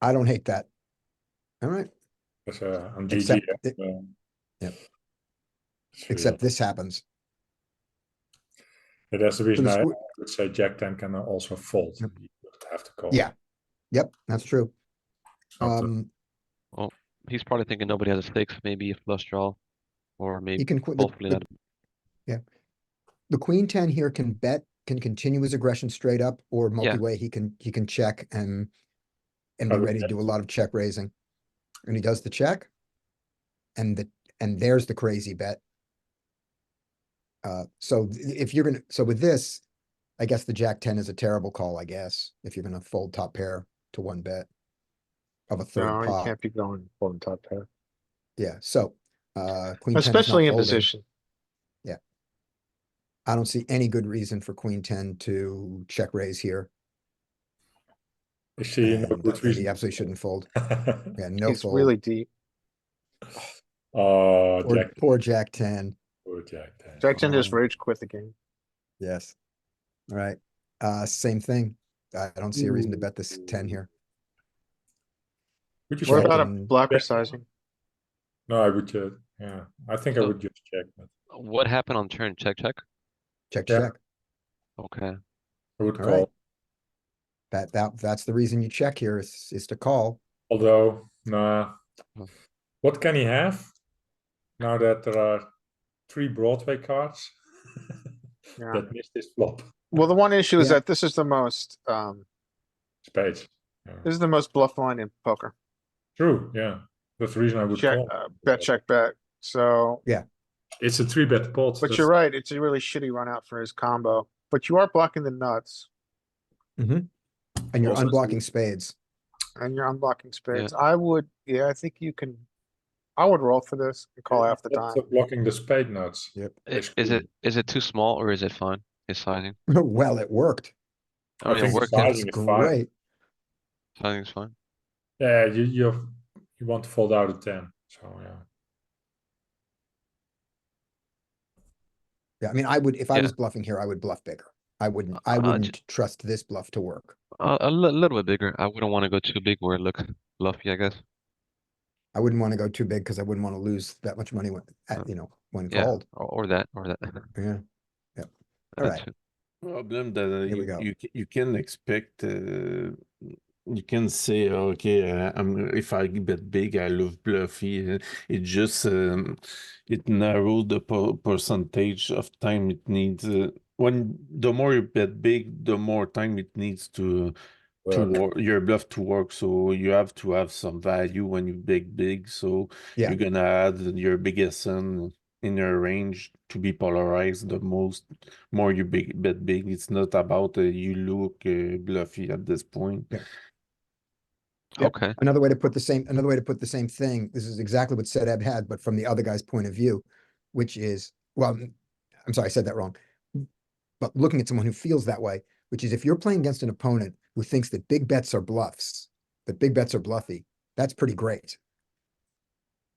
I don't hate that. All right, Because, uh, I'm GG. except, yeah, so- Yep. So, except this happens. yeah, That's the So reason the I squ- would say Jack ten can also fold. You Yep. don't have to call. Yeah. Yep, that's true. It's not, uh, Um, He's probably thinking nobody has a six, maybe a flush draw, or he maybe can, qu- the- hopefully the not. the queen ten here can bet, can continue his aggression straight up or multi-way, he can, he can check and and be I would ready to bet. do a lot of check raising. And he does the check. And the, and there's the crazy bet. Uh, so th- if you're gonna, so with this, I guess the jack ten is a terrible call, I guess, if you're gonna fold top pair to one bet of a No, third you pot. can't be going on top pair, Yeah, so, uh, queen ten is not especially in folding. position. I don't see any good reason for queen ten to check raise here. I see no and good that He reason. absolutely shouldn't fold. Yeah, no He's fold. really deep. Oh, Poor- Jack, Poor Jack ten, poor Jack ten. Jackson just Oh. rage quit the game. yes. All right, uh, same thing. I I don't see a reason to bet this ten here. Would you What Jack fold? about a and- blocker sizing? No, I would, uh, yeah, I think I So- would just check, but What happened on turn? Check, check. Check, Yeah. check. Okay. I would All right. call, That, that, that's the reason you check here is, is to call. although, nah. Oh. Hmm. What can he have? Now that there are three Broadway cards Yeah. that missed this flop, Well, the one issue is Yeah. that this is the most, um, spades. Yeah. this is the most bluff line in poker. True, yeah, that's the reason I would Check, call. uh, bet, check, bet. So, It's a three bet pot. but you're right, it's a really shitty run out for his combo, but you are blocking the nuts And you're Also- unblocking spades. and you're unblocking spades. I would, yeah, I think you can, I would roll for this and call half the time. Blocking the spade nuts. Yep. I- It's Is cool. it, is it too small or is it fine? His sizing? Well, it worked. I mean, it think the worked size- out. That's Sizing is fine. great. Sizing's fine. Yeah, you, you, you want to fold out a ten, so, yeah. Yeah, I mean, I would, if I Yeah. was bluffing here, I would bluff bigger. I wouldn't, I Uh, j- wouldn't trust this bluff to work. A, a li- little bit bigger. I wouldn't want to go too big where it looks bluffy, I guess. I wouldn't want to go too big because I wouldn't want to lose that much money when, Uh, at, you know, when yeah. called. Or, or that, or that. Yeah, That's Alright. it. problem that uh, Here we you, go. you ca- you can expect uh, you can say okay uh, I'm, if i bet big i love bluffy uh, it just um, it narrowed the po- percentage of time it needs uh, when the more you bet big the more time it needs to to Well, work, your bluff to work so you have to have some value when you bet big so Yeah. you're gonna add your biggest and in your range to be polarized the most more you big bet big it's not about uh, you look uh, bluffy at this point Yeah. Yep. Okay. another way to put the same, another way to put the same thing, this is exactly what Sedab had, but from the other guy's point of view, which is, well, n- I'm sorry, I said that wrong. But looking at someone who feels that way, which is if you're playing against an opponent who thinks that big bets are bluffs, that big bets are bluffy, that's pretty great.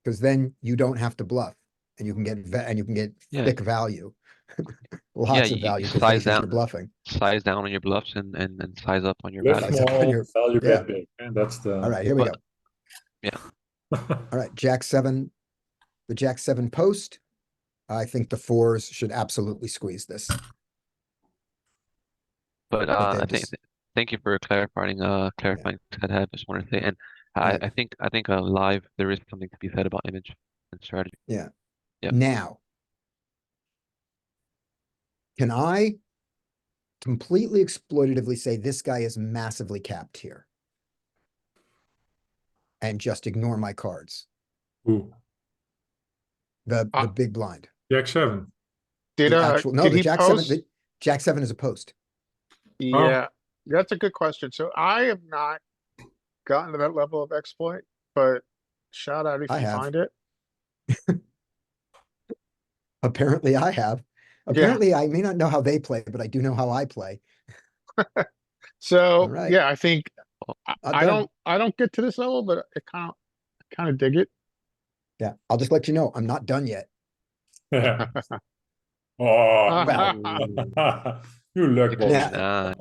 Because then you don't have to bluff and you can get, va- and you can get Yeah. thick value. Lots of you value for thinking size you're out- bluffing. Size down on your bluffs and, and, and size up on your Live value. Size up on small, your- value yeah. bet big, and that's the. All right, here we go. But- All right, jack seven, the jack seven post. I think the fours should absolutely squeeze this. But But uh, then I think just- th- thank you for clarifying. Uh, clarifying that I just wanted to say, and I, Yeah. I think I think uh, live there is something to be said about image and strategy. Yep. Now. Can I completely exploitatively say this guy is massively capped here? And just ignore my cards, Ooh, the, Uh, the big blind, Jack seven. Did, the uh, actual, no, did the he jack seven, post? the jack seven is a post. Oh. Yeah, that's a good question. So I have not gotten to that level of exploit, but shout out if I you have. find it. Apparently I have. Apparently I may not know how they play, but I do know how I play. So, Alright. yeah, I think, Oh, I, I've I done. don't, I don't get to this level, but I kind of, kind of dig it. Yeah, I'll just let you know, I'm not done yet. Oh. Well, You luck Image, ball. Yeah. nah,